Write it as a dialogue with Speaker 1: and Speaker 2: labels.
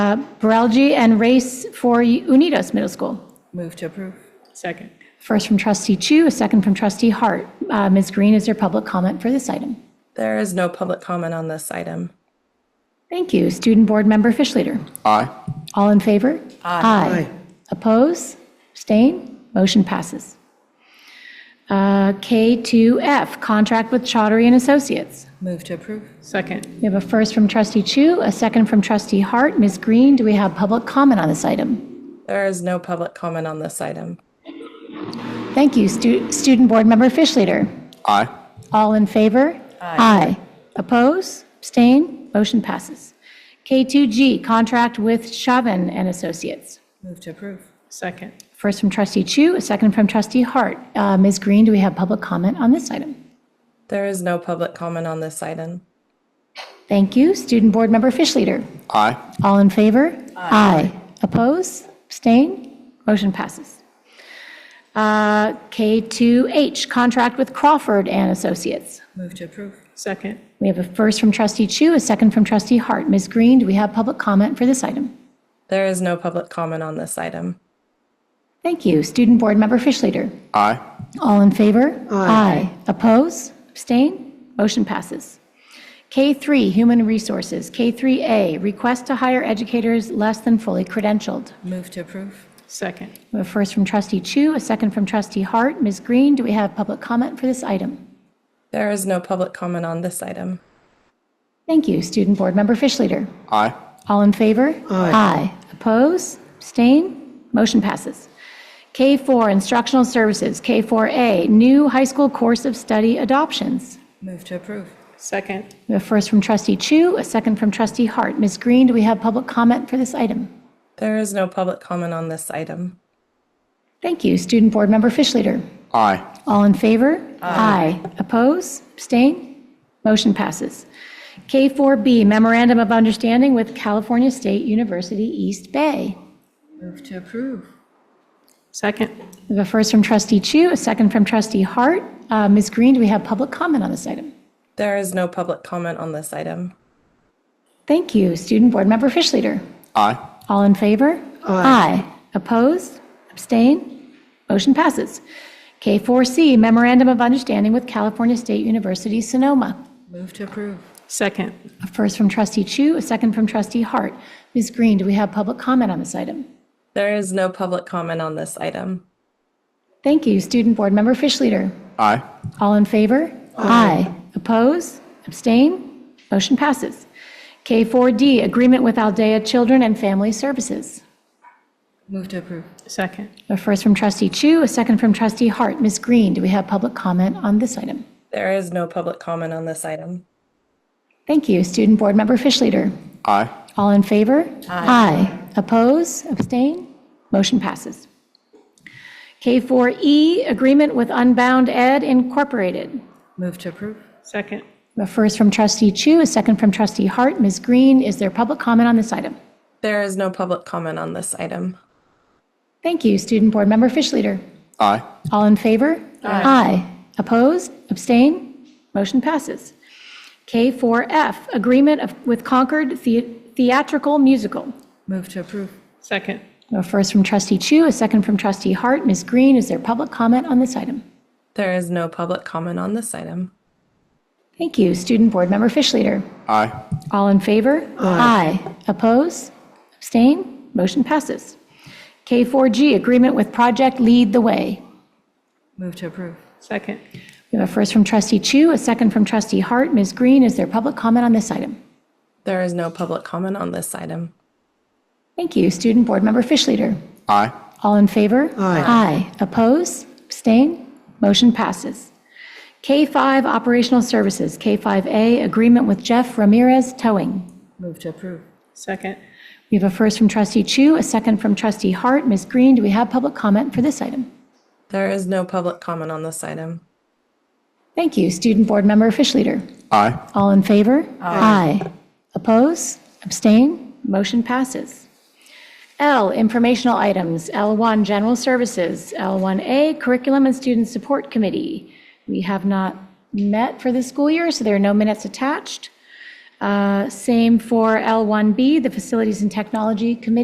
Speaker 1: uh, Baralji and Race for Unidos Middle School.
Speaker 2: Move to approve.
Speaker 3: Second.
Speaker 1: First from trustee Chu, a second from trustee Hart. Uh, Ms. Green, is there public comment for this item?
Speaker 2: There is no public comment on this item.
Speaker 1: Thank you. Student Board Member Fish Leader.
Speaker 4: Aye.
Speaker 1: All in favor? Aye. Oppose? Abstain? Motion passes. Uh, K2F, Contract with Chaudry and Associates.
Speaker 2: Move to approve.
Speaker 3: Second.
Speaker 1: We have a first from trustee Chu, a second from trustee Hart. Ms. Green, do we have public comment on this item?
Speaker 2: There is no public comment on this item.
Speaker 1: Thank you. Stu- Student Board Member Fish Leader.
Speaker 4: Aye.
Speaker 1: All in favor? Aye. Oppose? Abstain? Motion passes. K2G, Contract with Chauvin and Associates.
Speaker 2: Move to approve.
Speaker 3: Second.
Speaker 1: First from trustee Chu, a second from trustee Hart. Uh, Ms. Green, do we have public comment on this item?
Speaker 2: There is no public comment on this item.
Speaker 1: Thank you. Student Board Member Fish Leader.
Speaker 4: Aye.
Speaker 1: All in favor? Aye. Oppose? Abstain? Motion passes. Uh, K2H, contract with Crawford and Associates.
Speaker 2: Move to approve.
Speaker 3: Second.
Speaker 1: We have a first from trustee Chu, a second from trustee Hart. Ms. Green, do we have public comment for this item?
Speaker 2: There is no public comment on this item.
Speaker 1: Thank you. Student Board Member Fish Leader.
Speaker 4: Aye.
Speaker 1: All in favor? Aye. Oppose? Abstain? Motion passes. K3, Human Resources. K3A, Request to Hire Educators Less Than Fully Credentialed.
Speaker 2: Move to approve.
Speaker 3: Second.
Speaker 1: We have a first from trustee Chu, a second from trustee Hart. Ms. Green, do we have public comment for this item?
Speaker 2: There is no public comment on this item.
Speaker 1: Thank you. Student Board Member Fish Leader.
Speaker 4: Aye.
Speaker 1: All in favor? Aye. Oppose? Abstain? Motion passes. K4, Instructional Services. K4A, New High School Course of Study Adoptions.
Speaker 2: Move to approve.
Speaker 3: Second.
Speaker 1: We have first from trustee Chu, a second from trustee Hart. Ms. Green, do we have public comment for this item?
Speaker 2: There is no public comment on this item.
Speaker 1: Thank you. Student Board Member Fish Leader.
Speaker 4: Aye.
Speaker 1: All in favor? Aye. Oppose? Abstain? Motion passes. K4B, Memorandum of Understanding with California State University East Bay.
Speaker 2: Move to approve.
Speaker 3: Second.
Speaker 1: We have a first from trustee Chu, a second from trustee Hart. Uh, Ms. Green, do we have public comment on this item?
Speaker 2: There is no public comment on this item.
Speaker 1: Thank you. Student Board Member Fish Leader.
Speaker 4: Aye.
Speaker 1: All in favor? Aye. Opposed? Abstain? Motion passes. K4C, Memorandum of Understanding with California State University Sonoma.
Speaker 2: Move to approve.
Speaker 3: Second.
Speaker 1: A first from trustee Chu, a second from trustee Hart. Ms. Green, do we have public comment on this item?
Speaker 2: There is no public comment on this item.
Speaker 1: Thank you. Student Board Member Fish Leader.
Speaker 4: Aye.
Speaker 1: All in favor? Aye. Oppose? Abstain? Motion passes. K4D, Agreement with Aldea Children and Family Services.
Speaker 2: Move to approve.
Speaker 3: Second.
Speaker 1: A first from trustee Chu, a second from trustee Hart. Ms. Green, do we have public comment on this item?
Speaker 2: There is no public comment on this item.
Speaker 1: Thank you. Student Board Member Fish Leader.
Speaker 4: Aye.
Speaker 1: All in favor? Aye. Oppose? Abstain? Motion passes. K4E, Agreement with Unbound Ed Incorporated.
Speaker 2: Move to approve.
Speaker 3: Second.
Speaker 1: A first from trustee Chu, a second from trustee Hart. Ms. Green, is there public comment on this item?
Speaker 2: There is no public comment on this item.
Speaker 1: Thank you. Student Board Member Fish Leader.
Speaker 4: Aye.
Speaker 1: All in favor? Aye. Opposed? Abstain? Motion passes. K4F, Agreement of- with Concord The- Theatrical Musical.
Speaker 2: Move to approve.
Speaker 3: Second.
Speaker 1: A first from trustee Chu, a second from trustee Hart. Ms. Green, is there public comment on this item?
Speaker 2: There is no public comment on this item.
Speaker 1: Thank you. Student Board Member Fish Leader.
Speaker 4: Aye.
Speaker 1: All in favor? Aye. Oppose? Abstain? Motion passes. K4G, Agreement with Project Lead the Way.
Speaker 2: Move to approve.
Speaker 3: Second.
Speaker 1: We have a first from trustee Chu, a second from trustee Hart. Ms. Green, is there public comment on this item?
Speaker 2: There is no public comment on this item.
Speaker 1: Thank you. Student Board Member Fish Leader.
Speaker 4: Aye.
Speaker 1: All in favor? Aye. Oppose? Abstain? Motion passes. K5 Operational Services, K5A, Agreement with Jeff Ramirez Towing.
Speaker 2: Move to approve.
Speaker 3: Second.
Speaker 1: We have a first from trustee Chu, a second from trustee Hart. Ms. Green, do we have public comment for this item?
Speaker 2: There is no public comment on this item.
Speaker 1: Thank you. Student Board Member Fish Leader.
Speaker 4: Aye.
Speaker 1: All in favor? Aye. Oppose? Abstain? Motion passes. L, informational items. L1, general services. L1A, curriculum and student support committee. We have not met for this school year, so there are no minutes attached. Uh, Same for L1B, the Facilities and Technology Committee